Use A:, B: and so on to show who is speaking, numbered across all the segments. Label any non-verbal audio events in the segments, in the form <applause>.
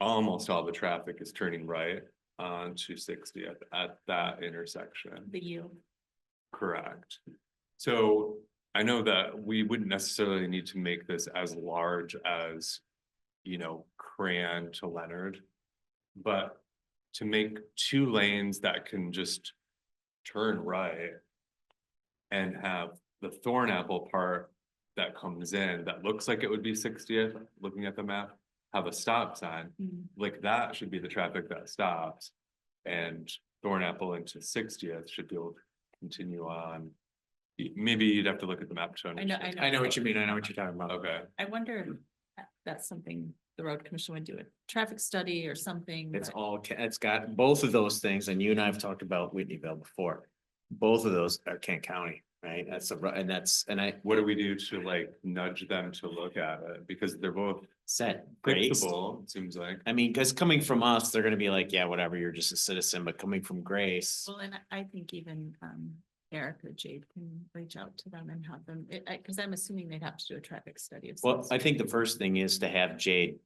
A: almost all the traffic is turning right on two sixty at, at that intersection.
B: the U.
A: Correct. So I know that we wouldn't necessarily need to make this as large as, you know, Cran to Leonard. But to make two lanes that can just turn right and have the Thorn Apple part that comes in, that looks like it would be sixtieth, looking at the map, have a stop sign
B: Hmm,
A: like that should be the traffic that stops. And Thornapple into Sixtieth should be able to continue on. Y- Maybe you'd have to look at the map to
B: I know,
A: understand.
B: I know.
C: I know what you mean. I know what you're talking about.
A: Okay,
B: I wonder if that- that's something the road commission would do, a traffic study or something.
C: It's
B: but-
C: all, ca- it's got both of those things, and you and I have talked about Whitneyville before. Both of those are Kent County, right? That's a, ru- and that's, and I
A: what do we do to like nudge them to look at it? Because they're both
C: said, Grace.
A: fixable, it seems like.
C: I mean, because coming from us, they're gonna be like, yeah, whatever, you're just a citizen, but coming from Grace,
B: Well, and I- I think even um Eric or Jade can reach out to them and have them, it, I, cause I'm assuming they'd have to do a traffic study of. some
C: well, I think the first thing is to have Jade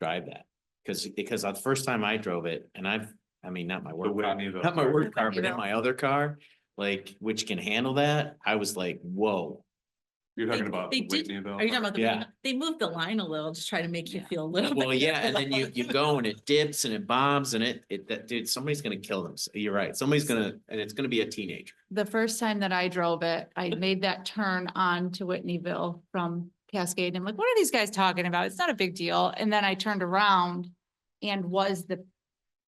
C: drive that. Because, because the first time I drove it, and I've, I mean, not my work, car-
A: Whitneyville
C: not my
A: car.
C: work car, but in
B: Whitneyville.
C: my other car, like, which can handle that, I was like, whoa.
A: You're talking
B: They-
A: about
B: they
A: the
B: did-
A: Whitneyville.
B: Are you talking about? the-
C: Yeah.
B: They moved the line a little to try to make you feel a little. <laughs>
C: Well,
B: bit
C: yeah, and then you,
B: about
C: you
B: it.
C: go and it dips and it bombs and it, it, that, dude, somebody's gonna kill them. So You're right. Somebody's gonna, and it's gonna be a teenager.
D: the first time that I drove it, I made that turn on to Whitneyville from Cascade. and I'm like, what are these guys talking about? It's not a big deal. And then I turned around and was the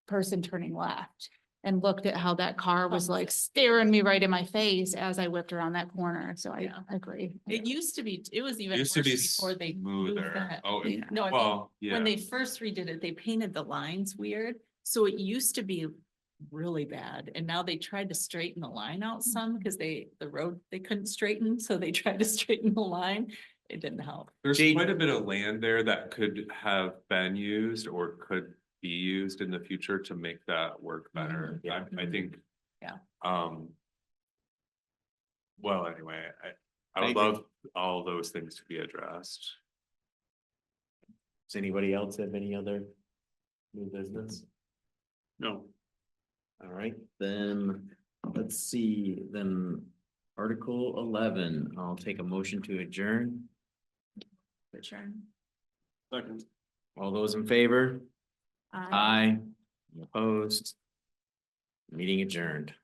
D: person turning left and looked at how that car was
B: Oh.
D: like staring me right in my face as I whipped around that corner. So I
B: Yeah.
D: agree.
B: It used to be, it was even
A: Used to
B: worse
A: be
B: before they moved
A: smoother.
B: that.
A: Oh, it-
D: Yeah.
B: No, I mean,
A: well, yeah.
B: when they first redid it, they painted the lines weird, so it used to be really bad, and now they tried to straighten the line out some, because they, the road, they couldn't straighten, so they <laughs> tried to straighten the line. It didn't help.
A: There's
C: Jade-
A: quite a bit of land there that could have been used or could be used in the future to make that work better.
C: Mhm.
A: I, I
B: Mhm.
A: think.
B: Yeah.
A: Um. Well, anyway, I,
C: I
A: I would
C: agree.
A: love all those things to be addressed.
C: Does anybody else have any other new business? No. All right, then, let's see, then Article eleven, I'll take a motion to adjourn.
B: But sure.
A: Second.
C: All those in favor?
D: I-
C: Aye. Opposed? Meeting adjourned.